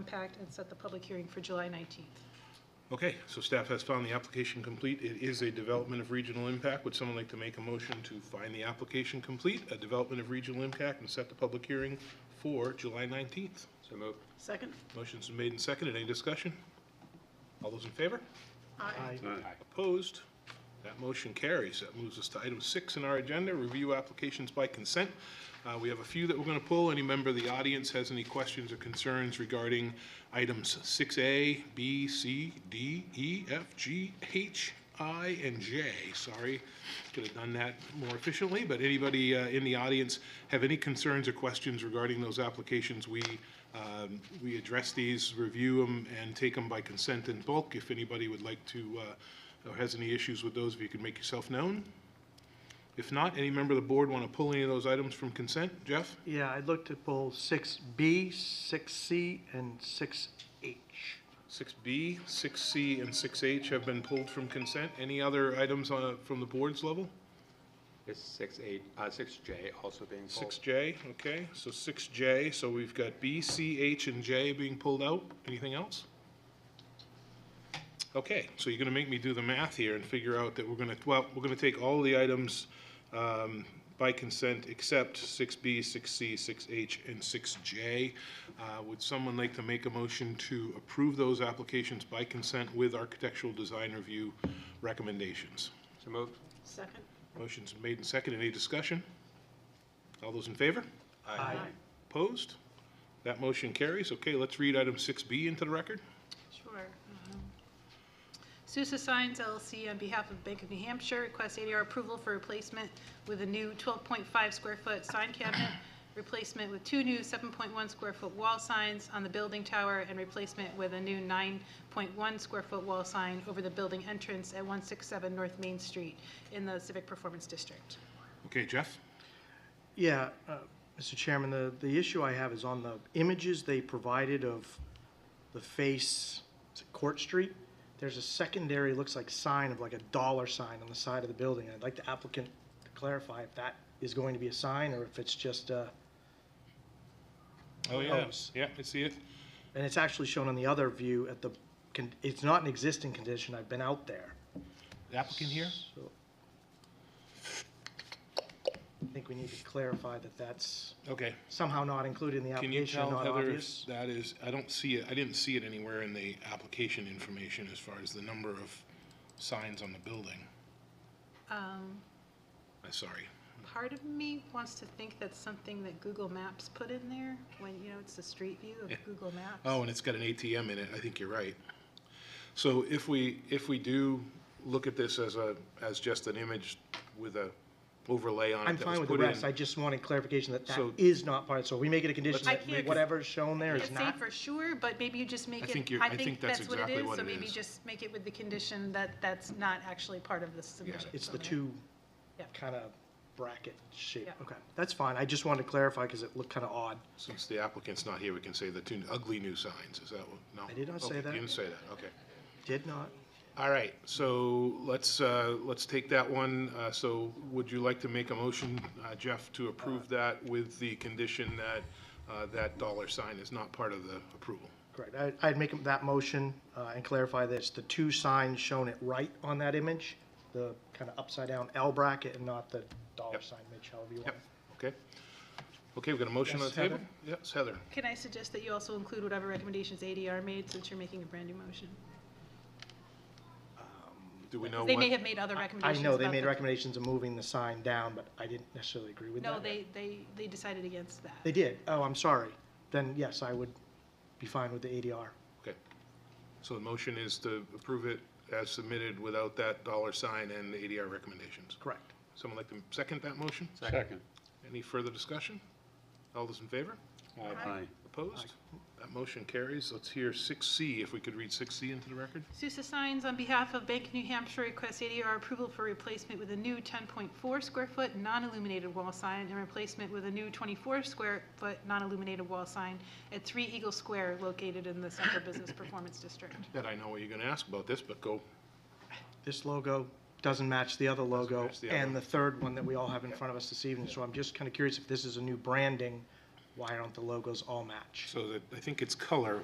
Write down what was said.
impact and set the public hearing for July 19th. Okay, so staff has found the application complete. It is a development of regional impact. Would someone like to make a motion to find the application complete, a development of regional impact, and set the public hearing for July 19th? So moved. Second? Motion's been made and seconded. Any discussion? All those in favor? Aye. Opposed? That motion carries. That moves us to item six in our agenda, review applications by consent. Uh, We have a few that we're going to pull. Any member of the audience has any questions or concerns regarding items 6A, B, C, D, E, F, G, H, I, and J? Sorry, could have done that more efficiently, but anybody uh, in the audience have any concerns or questions regarding those applications? We um, We address these, review them, and take them by consent in bulk. If anybody would like to, uh, or has any issues with those, if you could make yourself known. If not, any member of the board want to pull any of those items from consent? Jeff? Yeah, I'd look to pull six B, six C, and six H. 6B, 6C, and 6H have been pulled from consent. Any other items on- from the board's level? Is six eight, uh, six J also being pulled? 6J, okay, so 6J, so we've got B, C, H, and J being pulled out. Anything else? Okay, so you're gonna make me do the math here and figure out that we're gonna, well, we're gonna take all the items um, by consent except 6B, 6C, 6H, and 6J. Uh, Would someone like to make a motion to approve those applications by consent with architectural design review recommendations? So moved. Second? Motion's been made and seconded. Any discussion? All those in favor? Aye. Opposed? That motion carries. Okay, let's read item 6B into the record. Sure. Um, Sousa Signs LLC, on behalf of Bank of New Hampshire, requests ADR approval for replacement with a new 12.5 square foot sign cabinet, replacement with two new 7.1 square foot wall signs on the building tower, and replacement with a new 9.1 square foot wall sign over the building entrance at 167 North Main Street in the Civic Performance District. Okay, Jeff? Yeah, uh, Mr. Chairman, the, the issue I have is on the images they provided of the face, is it Court Street? There's a secondary, looks like sign of like a dollar sign on the side of the building. I'd like the applicant to clarify if that is going to be a sign or if it's just uh, a, Oh, yeah. Yeah, I see it. and it's actually shown on the other view at the, con- it's not an existing condition. I've been out there. Applicant here? So, I think we need to clarify that that's Okay. somehow not included in the Can you application, tell not Heather if obvious. that is, I don't see it, I didn't see it anywhere in the application information as far as the number of signs on the building. Um, I'm sorry. Part of me wants to think that's something that Google Maps put in there, when, you know, it's the street view of Google Maps. Oh, and it's got an ATM in it, I think you're right. So if we, if we do look at this as a, as just an image with a overlay on I'm it that was fine with the put rest, in. I just wanted clarification that that So- is not part, so we make it a condition I that can't- whatever's shown there is Can't say not. for sure, but maybe you just make I it. think you're- I think that's exactly what So it maybe is. just make it with the condition that that's not actually part of the submission. It's the Okay. two Yeah. kind of bracket shape, Yeah. okay, that's fine, I just wanted to clarify because it looked kind of odd. Since the applicant's not here, we can say the two ugly new signs, is that what, no? I did not say Okay, you that. didn't say that, okay. Did not, All right, so let's, uh, let's take that one. Uh, So would you like to make a motion, uh, Jeff, to approve that with the condition that uh, that dollar sign is not part of the approval? correct, I, I'd make that motion uh, and clarify this, the two signs shown at right on that image, the kind of upside down L bracket and not the dollar Yep. sign, Mitch, however you want. Yep, okay. Okay, we've got a motion on the Yes, table? Heather? Yes, Heather. Can I suggest that you also include whatever recommendations ADR made, since you're making a brand-new motion? Do we know They may what? have made other I recommendations. know they about made the- recommendations of moving the sign down, but I didn't necessarily agree with that. No, they, they, they decided against that. They did. Oh, I'm sorry. Then yes, I would be fine with the ADR. Okay. So the motion is to approve it as submitted without that dollar sign and the ADR recommendations. Correct. Someone like to second that motion? Second. Any further discussion? All those in favor? Aye. Opposed? That motion carries. Let's hear 6C, if we could read 6C into the record. Sousa Signs, on behalf of Bank of New Hampshire, requests ADR approval for replacement with a new 10.4 square foot non-illuminated wall sign and replacement with a new 24 square foot non-illuminated wall sign at 3 Eagle Square located in the Central Business Performance District. That I know what you're going to ask about this, but go. This logo doesn't match the other logo match the other. and the third one that we all have in front of us this evening. So I'm just kind of curious if this is a new branding, why aren't the logos all match? So that, I think it's color